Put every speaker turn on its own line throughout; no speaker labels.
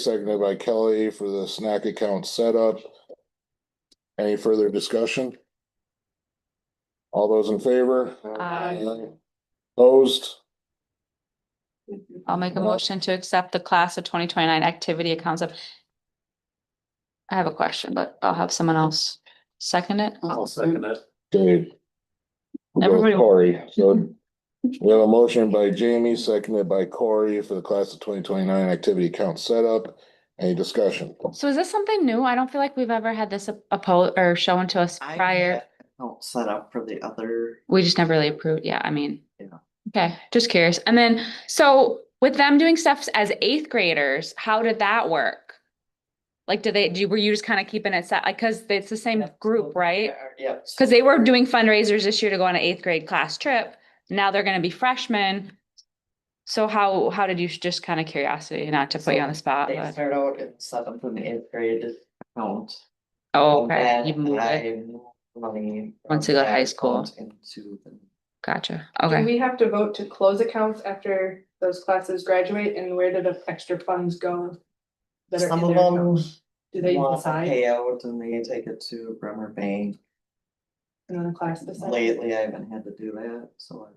seconded by Kelly for the snack account setup. Any further discussion? All those in favor?
Aye.
Opposed?
I'll make a
Well-
motion to accept the class of twenty twenty-nine activity accounts of. I have a question, but I'll have someone else second it.
I'll second it.
Okay. We'll go with
Everybody-
Corey, so we have a motion by Jamie, seconded by Corey for the class of twenty twenty-nine activity account setup. Any discussion?
So is this something new? I don't feel like we've ever had this opposed or shown to us
I
prior.
had Don't set up for the other,
We just never really approved. Yeah, I mean.
Yeah.
Okay, just curious. And then, so with them doing stuff as eighth graders, how did that work? Like, did they, do, you- were you just kind of keeping it set? Like, cause it's the same
Yeah,
group, right?
yeah. so
Cause they were doing fundraisers this year to go on an eighth grade class trip. Now they're gonna be freshmen. So how, how did you, just kind of curiosity, not to put you on the spot,
They
but,
start out in seventh and eighth grade account.
oh,
and
okay, you
then
moved it.
I moved Money.
Once
from
you go to
that
high school.
account Into the
Gotcha,
Do
okay.
we have to vote to close accounts after those classes graduate and where do the extra funds go? that are in
Some of
their
them
accounts? Do they
want to
decide
pay out and they take it to Bremer Bank.
and then the class decides?
Lately, I haven't had to do that, so.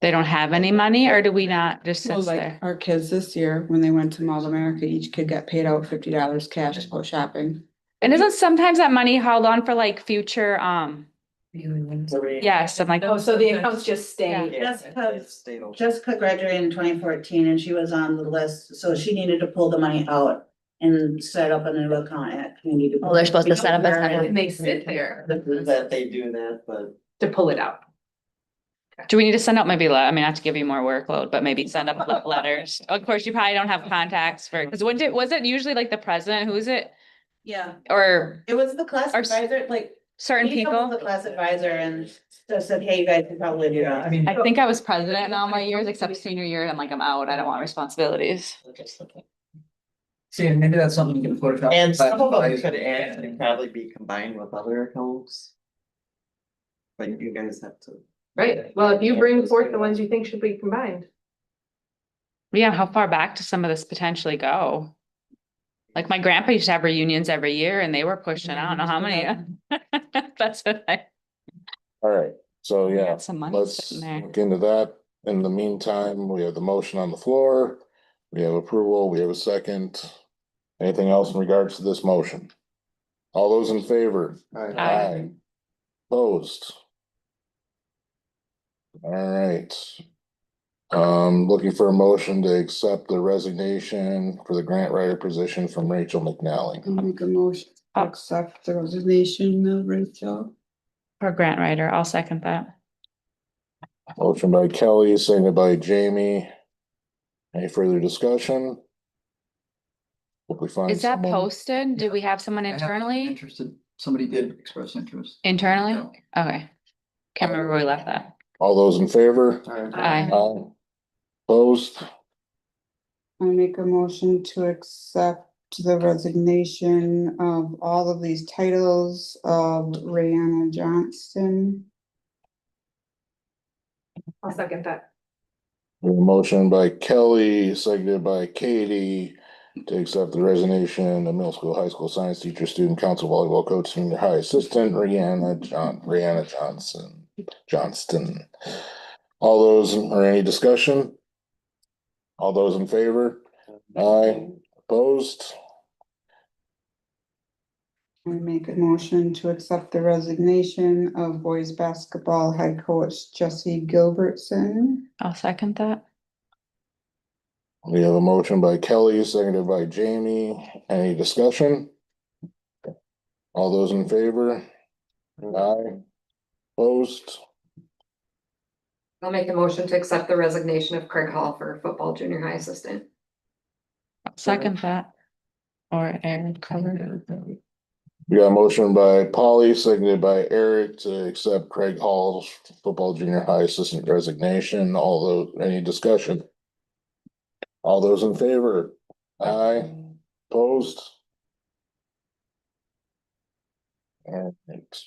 They don't have any money or do we not just
Well,
sit
like
there?
our kids this year, when they went to Mall of America, each kid got paid out fifty dollars cash to go shopping.
And isn't sometimes that money held on for like future, um, yes, I'm like,
Oh, so the accounts just stay.
That's because-
State.
Jessica graduated in twenty fourteen and she was on the list, so she needed to pull the money out and set up a new account at community.
Oh, they're supposed to set up a
Development.
And they sit there
That they do that, but
to pull it out.
do we need to send out maybe, le- I mean, not to give you more workload, but maybe send up le- letters? Of course, you probably don't have contacts for, cause what did, was it usually like the president, who is it?
Yeah,
Or
it was the class
Our s-
advisor, like.
certain
he
people?
called The class advisor and just said, hey, you guys can probably do
yeah, I
that.
mean.
I think I was president in all my years except senior year. and I'm like, I'm out. I don't want responsibilities.
See, and maybe that's something you can put it up.
And some of them could actually probably be combined with other accounts. But you guys have to.
Right, well, if you bring forth the ones you think should be combined.
Yeah, how far back does some of this potentially go? Like my grandpa used to have reunions every year and they were pushing, I don't know how many. That's what I.
All right, so Oh, yeah,
Got Some money
let's
sitting there.
look into that. In the meantime, we have the motion on the floor. We have approval, we have a second. Anything else in regards to this motion? All those in favor?
Aye.
Opposed? All right. Um, looking for a motion to accept the resignation for the grant writer position from Rachel
I'll
McNally.
make a motion, to accept the resignation of Rachel.
For grant writer, I'll second that.
Motion by Kelly, seconded by Jamie. Any further discussion? Hope we find
Is that
someone.
posted? Do we have someone internally?
Interested, somebody did express interest.
Internally?
Yeah.
Okay. Can't remember where we left that.
All those in favor?
Aye.
Aye. Opposed?
I make a motion to accept the resignation of all of these titles of Rayanna Johnston.
I'll second that.
We have a Motion by Kelly, seconded by Katie to accept the resignation of middle school, high school science teacher, student council volleyball coach, senior high assistant, Rihanna John, Rihanna Johnson, Johnston. All those, or any discussion? All those in favor? Aye. Opposed?
I make a motion to accept the resignation of boys basketball head coach Jesse Gilbertson.
I'll second that.
We have a motion by Kelly, seconded by Jamie. Any discussion? All those in favor? Aye. Opposed?
I'll make a motion to accept the resignation of Craig Hall for football junior high assistant.
Second that. Or Aaron covered.
We got a motion by Polly, seconded by Eric to accept Craig Hall's football junior high assistant resignation. All those, any discussion? All those in favor? Aye. Opposed? All right.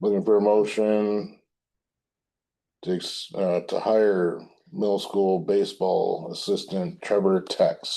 Looking for a motion to, ex- uh, to hire middle school baseball assistant Trevor Tex.